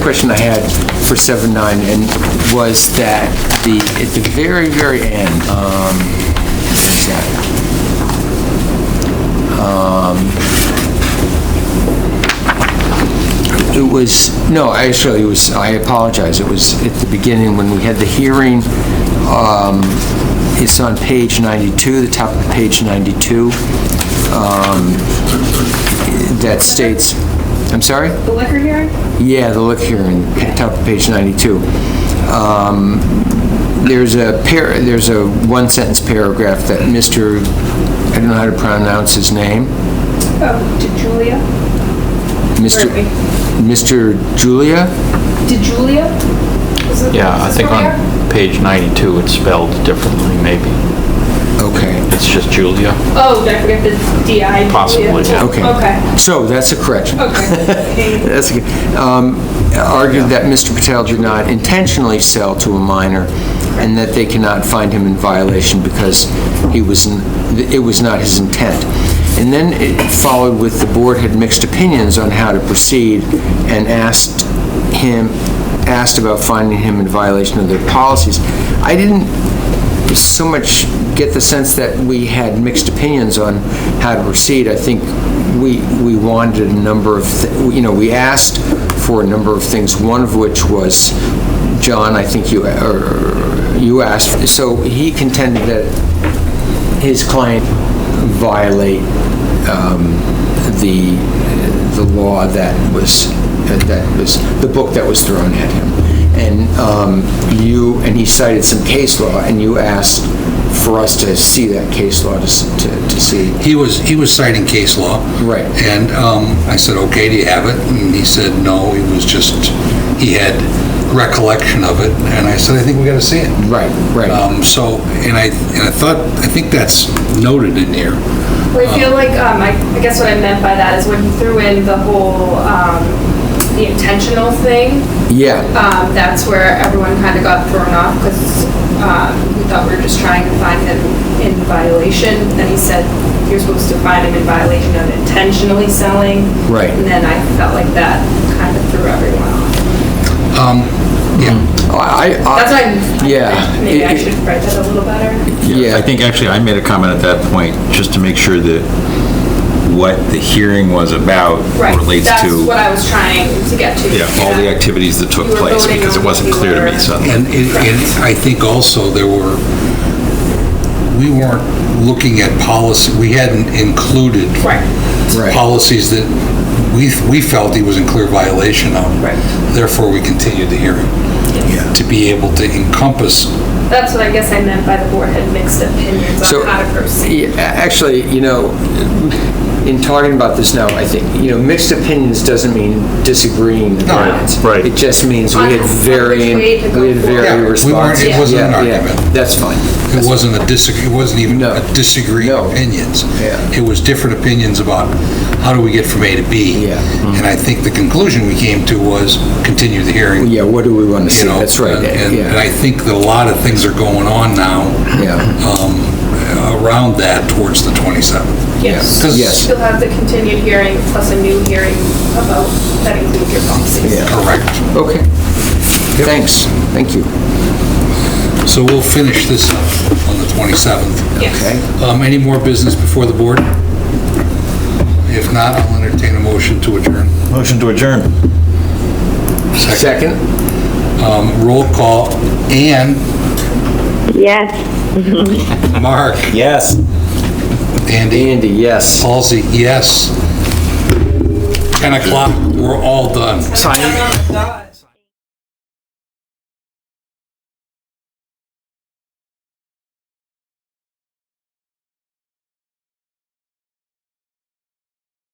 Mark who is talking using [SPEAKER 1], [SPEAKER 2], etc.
[SPEAKER 1] Question I had for 7-9 and was that the, at the very, very end, um, what's that? Um, It was, no, actually, it was, I apologize, it was at the beginning when we had the hearing, um, it's on page 92, the top of page 92, um, that states, I'm sorry?
[SPEAKER 2] The liquor hearing?
[SPEAKER 1] Yeah, the look here in top of page 92. Um, There's a par, there's a one-sentence paragraph that Mr., I don't know how to pronounce his name,
[SPEAKER 2] Oh, did Julia?
[SPEAKER 1] Mr.
[SPEAKER 2] Murphy.
[SPEAKER 1] Mr. Julia?
[SPEAKER 2] Did Julia? Is it-
[SPEAKER 3] Yeah, I
[SPEAKER 2] is this
[SPEAKER 3] think
[SPEAKER 2] where we
[SPEAKER 3] on
[SPEAKER 2] are?
[SPEAKER 3] page 92, it's spelled differently, maybe.
[SPEAKER 1] Okay,
[SPEAKER 3] It's just Julia.
[SPEAKER 2] Oh, did I forget the DI? Julia?
[SPEAKER 3] Possibly, yeah.
[SPEAKER 1] okay.
[SPEAKER 2] Okay,
[SPEAKER 1] So that's a correction.
[SPEAKER 2] okay.
[SPEAKER 1] That's, good. Um, argued that Mr. Patel did not intentionally sell to a minor and that they cannot find him in violation because he was, n- it was not his intent. And then it followed with the board had mixed opinions on how to proceed and asked him, asked about finding him in violation of their policies. I didn't so much get the sense that we had mixed opinions on how to proceed. I think we, we wanted a number of, thi- you know, we asked for a number of things, one of which was, John, I think you, or you asked, so he contended that his client violate um, the, the law that was, that was, the book that was thrown at him. And um, you, and he cited some case law, and you asked for us to see that case law to, s- to to see.
[SPEAKER 4] He was, he was citing case law.
[SPEAKER 1] Right.
[SPEAKER 4] And um, I said, okay, do you have it? And he said, no, he was just, he had recollection of it. And I said, I think we gotta see it.
[SPEAKER 1] Right, right.
[SPEAKER 4] Um, So, and I, and I thought, I think that's noted in here.
[SPEAKER 2] Well, I feel like, um, I, I guess what I meant by that is when you threw in the whole, um, the intentional thing,
[SPEAKER 1] Yeah,
[SPEAKER 2] um, that's where everyone kind of got thrown off because um, we thought we were just trying to find him in violation. Then he said you're supposed to find him in violation of intentionally selling.
[SPEAKER 1] Right.
[SPEAKER 2] And then I felt like that kind of threw everyone off.
[SPEAKER 4] Um,
[SPEAKER 1] Hmm.
[SPEAKER 4] Yeah,
[SPEAKER 1] I, I-
[SPEAKER 2] That's why. I'm-
[SPEAKER 1] Uh, yeah.
[SPEAKER 2] Maybe I
[SPEAKER 1] It-
[SPEAKER 2] should write that a little better.
[SPEAKER 1] Yeah.
[SPEAKER 5] Yeah, I think actually I made a comment at that point, just to make sure that what the hearing was about
[SPEAKER 2] Right.
[SPEAKER 5] relates
[SPEAKER 2] That's
[SPEAKER 5] to,
[SPEAKER 2] what I was trying to get to.
[SPEAKER 5] yeah, all the activities that took
[SPEAKER 2] You were
[SPEAKER 5] place,
[SPEAKER 2] voting
[SPEAKER 5] because
[SPEAKER 2] on
[SPEAKER 5] it wasn't
[SPEAKER 2] what you
[SPEAKER 5] clear to
[SPEAKER 2] were-
[SPEAKER 5] me suddenly.
[SPEAKER 4] and it- and I think also there were, we weren't looking at policy, we hadn't included
[SPEAKER 2] Right.
[SPEAKER 1] Right.
[SPEAKER 4] policies that we, we felt he was in clear violation of.
[SPEAKER 2] Right.
[SPEAKER 4] Therefore, we continued the hearing. To be able to encompass,
[SPEAKER 2] That's what I guess I meant by the board had mixed opinions
[SPEAKER 1] So-
[SPEAKER 2] on how to proceed.
[SPEAKER 1] Yeah, Actually, you know, in talking about this now, I think, you know, mixed opinions doesn't mean disagreeing opinions.
[SPEAKER 3] right.
[SPEAKER 1] It just means we had
[SPEAKER 2] On- on
[SPEAKER 1] varying,
[SPEAKER 2] which way to go
[SPEAKER 1] we had
[SPEAKER 4] Yeah, we
[SPEAKER 1] varying
[SPEAKER 4] weren't- it
[SPEAKER 1] responses.
[SPEAKER 4] wasn't an
[SPEAKER 1] Yeah, yeah,
[SPEAKER 4] argument.
[SPEAKER 1] That's fine.
[SPEAKER 4] it wasn't a disagree, it wasn't even
[SPEAKER 1] No.
[SPEAKER 4] a disagreeing
[SPEAKER 1] No.
[SPEAKER 4] opinions.
[SPEAKER 1] Yeah.
[SPEAKER 4] It was different opinions about how do we get from A to B.
[SPEAKER 1] Yeah.
[SPEAKER 4] And I think the conclusion we came to was continue the hearing.
[SPEAKER 1] Yeah, what do we want to
[SPEAKER 4] you
[SPEAKER 1] see?
[SPEAKER 4] know,
[SPEAKER 1] That's right.
[SPEAKER 4] and- And and I
[SPEAKER 1] Yeah,
[SPEAKER 4] think that a lot of things are going on now
[SPEAKER 1] yeah,
[SPEAKER 4] um, around that towards the 27th.
[SPEAKER 1] Yes.
[SPEAKER 2] So
[SPEAKER 1] Yes.
[SPEAKER 2] You'll have the continued hearing plus a new hearing about, that includes your policies.
[SPEAKER 1] yeah.
[SPEAKER 4] Correct.
[SPEAKER 1] Okay. Thanks, thank you.
[SPEAKER 4] So we'll finish this up on the 27th.
[SPEAKER 2] Yes.
[SPEAKER 1] Okay.
[SPEAKER 4] Um, Any more business before the board? If not, I'll entertain a motion to adjourn.
[SPEAKER 5] Motion to adjourn.
[SPEAKER 1] Second?
[SPEAKER 4] Um, Roll call, Ann,
[SPEAKER 6] Yes.
[SPEAKER 4] Mark,
[SPEAKER 5] Yes.
[SPEAKER 4] Andy,
[SPEAKER 1] Andy, yes.
[SPEAKER 4] Halsey, yes. 10 o'clock, we're all done.
[SPEAKER 2] Sign.